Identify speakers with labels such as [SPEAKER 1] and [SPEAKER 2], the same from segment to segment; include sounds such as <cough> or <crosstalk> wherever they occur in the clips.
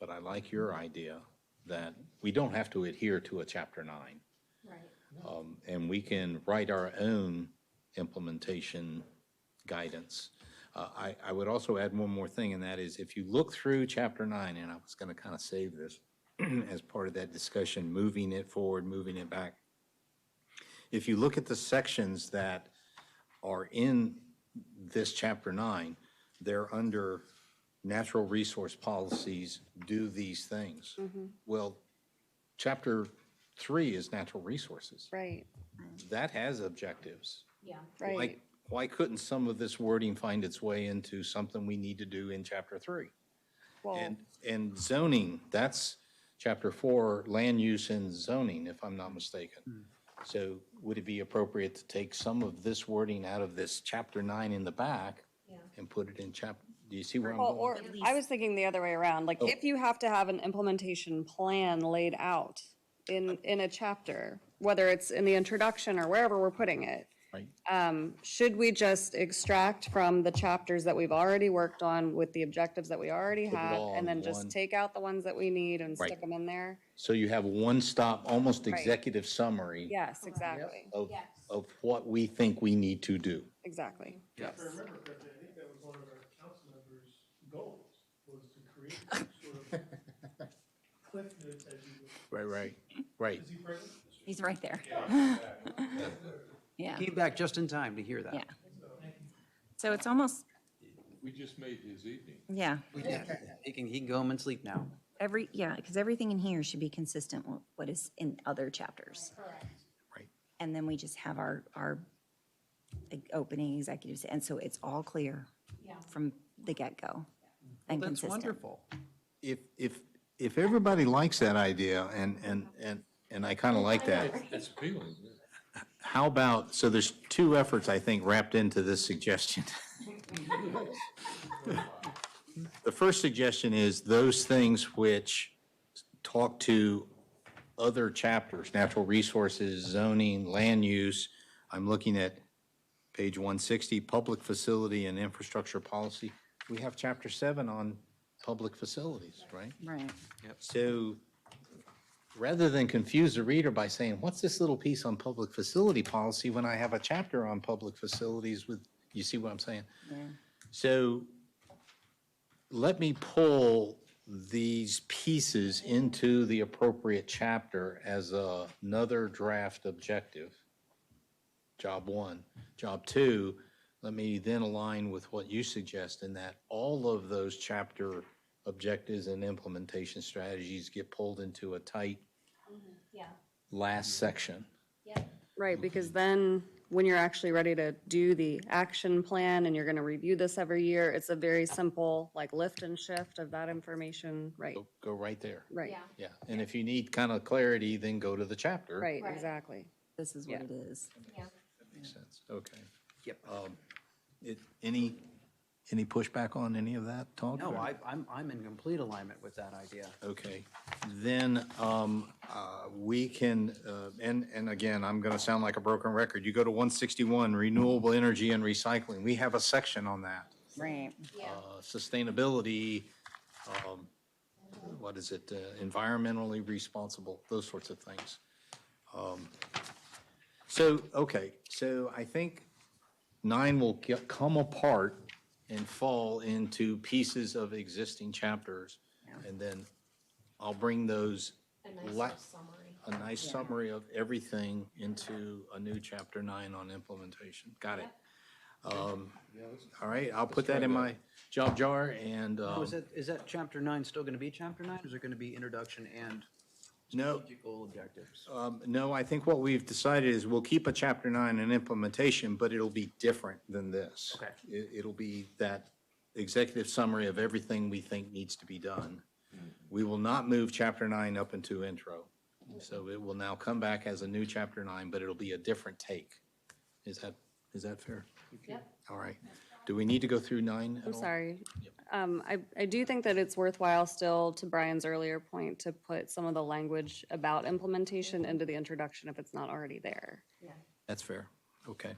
[SPEAKER 1] but I like your idea that we don't have to adhere to a chapter nine.
[SPEAKER 2] Right.
[SPEAKER 1] Um, and we can write our own implementation guidance. Uh, I, I would also add one more thing, and that is if you look through chapter nine, and I was gonna kind of save this <clears throat> as part of that discussion, moving it forward, moving it back. If you look at the sections that are in this chapter nine, they're under natural resource policies, do these things.
[SPEAKER 3] Mm-hmm,
[SPEAKER 1] Well, chapter three is natural resources.
[SPEAKER 3] Right,
[SPEAKER 1] That has objectives.
[SPEAKER 2] Yeah.
[SPEAKER 3] right.
[SPEAKER 1] Like, why couldn't some of this wording find its way into something we need to do in chapter three?
[SPEAKER 3] Well,
[SPEAKER 1] And, and zoning, that's chapter four, land use and zoning, if I'm not mistaken. So would it be appropriate to take some of this wording out of this chapter nine in the back
[SPEAKER 2] Yeah.
[SPEAKER 1] and put it in chap, do you see where I'm
[SPEAKER 3] well,
[SPEAKER 1] going? Oh.
[SPEAKER 3] or
[SPEAKER 2] At
[SPEAKER 3] I
[SPEAKER 2] least-
[SPEAKER 3] was thinking the other way around, like if you have to have an implementation plan laid out in, in a chapter, whether it's in the introduction or wherever we're putting it, um,
[SPEAKER 1] Right?
[SPEAKER 3] should we just extract from the chapters that we've already worked on with the objectives that we already
[SPEAKER 1] it
[SPEAKER 3] have
[SPEAKER 1] all in
[SPEAKER 3] and then just
[SPEAKER 1] one.
[SPEAKER 3] take out the ones that we need and
[SPEAKER 1] Right.
[SPEAKER 3] stick them in there?
[SPEAKER 1] So you have one stop, almost executive summary
[SPEAKER 3] Yes, exactly,
[SPEAKER 1] of,
[SPEAKER 2] Yes.
[SPEAKER 1] of what we think we need to do.
[SPEAKER 3] exactly.
[SPEAKER 4] Yes.
[SPEAKER 5] If I remember correctly, I think that was one of our council members' goals, was to create some sort of cliff notes as you, go.
[SPEAKER 1] Right,
[SPEAKER 3] <laughs>
[SPEAKER 1] right, right.
[SPEAKER 5] is he present?
[SPEAKER 6] He's right there. <laughs> Yeah,
[SPEAKER 4] Came back just in time to hear that.
[SPEAKER 6] yeah. So it's almost,
[SPEAKER 7] We just made his evening.
[SPEAKER 6] yeah,
[SPEAKER 4] We did. He can, he can go home and sleep now.
[SPEAKER 6] every, yeah, because everything in here should be consistent with what is in other chapters.
[SPEAKER 2] Correct.
[SPEAKER 6] And then we just have our, our like, opening executives, and so it's all clear
[SPEAKER 2] Yeah.
[SPEAKER 6] from the get-go and
[SPEAKER 4] That's
[SPEAKER 6] consistent.
[SPEAKER 4] wonderful.
[SPEAKER 1] If, if, if everybody likes that idea, and, and, and, and I kind of like that,
[SPEAKER 7] It's appealing, yeah.
[SPEAKER 1] how about, so there's two efforts, I think, wrapped into this suggestion. <laughs> The first suggestion is those things which talk to other chapters, natural resources, zoning, land use. I'm looking at page 160, public facility and infrastructure policy. We have chapter seven on public facilities, right?
[SPEAKER 6] Right.
[SPEAKER 1] So rather than confuse the reader by saying, what's this little piece on public facility policy when I have a chapter on public facilities with, you see what I'm saying? So let me pull these pieces into the appropriate chapter as a- another draft objective. Job one. Job two, let me then align with what you suggest in that all of those chapter objectives and implementation strategies get pulled into a tight
[SPEAKER 2] Yeah.
[SPEAKER 1] last section.
[SPEAKER 2] Yep.
[SPEAKER 3] Right, because then when you're actually ready to do the action plan and you're gonna review this every year, it's a very simple, like lift and shift of that information, right,
[SPEAKER 1] Go- Go right there.
[SPEAKER 3] right,
[SPEAKER 2] Yeah.
[SPEAKER 1] Yeah. And if you need kind of clarity, then go to the chapter.
[SPEAKER 3] right,
[SPEAKER 2] Right.
[SPEAKER 3] exactly.
[SPEAKER 6] This is what it is.
[SPEAKER 2] Yeah.
[SPEAKER 1] Makes sense. Okay.
[SPEAKER 4] Yep.
[SPEAKER 1] It, any, any pushback on any of that talk?
[SPEAKER 4] No,
[SPEAKER 1] or-
[SPEAKER 4] I, I'm, I'm in complete alignment with that idea.
[SPEAKER 1] Okay, then, um, uh, we can, uh, and, and again, I'm gonna sound like a broken record. You go to one sixty-one, renewable energy and recycling. We have a section on that.
[SPEAKER 6] Right.
[SPEAKER 2] Yeah.
[SPEAKER 1] Uh, Sustainability, um, what is it, uh, environmentally responsible, those sorts of things. Um, So, okay, so I think nine will get, come apart and fall into pieces of existing chapters. And then I'll bring those,
[SPEAKER 2] A nice
[SPEAKER 1] La-
[SPEAKER 2] little summary.
[SPEAKER 1] a nice summary of everything into a new chapter nine on implementation. Got it? Um, All right, I'll put that in my job jar and,
[SPEAKER 4] Oh,
[SPEAKER 1] um,
[SPEAKER 4] Is that, is that chapter nine still going to be chapter nine? Is it going to be introduction and
[SPEAKER 1] no,
[SPEAKER 4] strategic goal objectives?
[SPEAKER 1] um, no, I think what we've decided is we'll keep a chapter nine in implementation, but it'll be different than this.
[SPEAKER 4] Okay.
[SPEAKER 1] It, it'll be that executive summary of everything we think needs to be done. We will not move chapter nine up into intro. So it will now come back as a new chapter nine, but it'll be a different take. Is that, is that fair?
[SPEAKER 2] Yep.
[SPEAKER 1] All right. Do we need to go through nine? at
[SPEAKER 3] I'm
[SPEAKER 1] all?
[SPEAKER 3] sorry. Um, I, I do think that it's worthwhile still, to Brian's earlier point, to put some of the language about implementation into the introduction if it's not already there.
[SPEAKER 2] Yeah.
[SPEAKER 1] That's fair. Okay.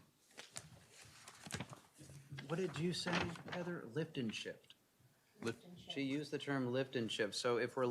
[SPEAKER 4] What did you say, Heather? Lift and shift.
[SPEAKER 1] Lift-
[SPEAKER 4] She used the term lift and shift, so if we're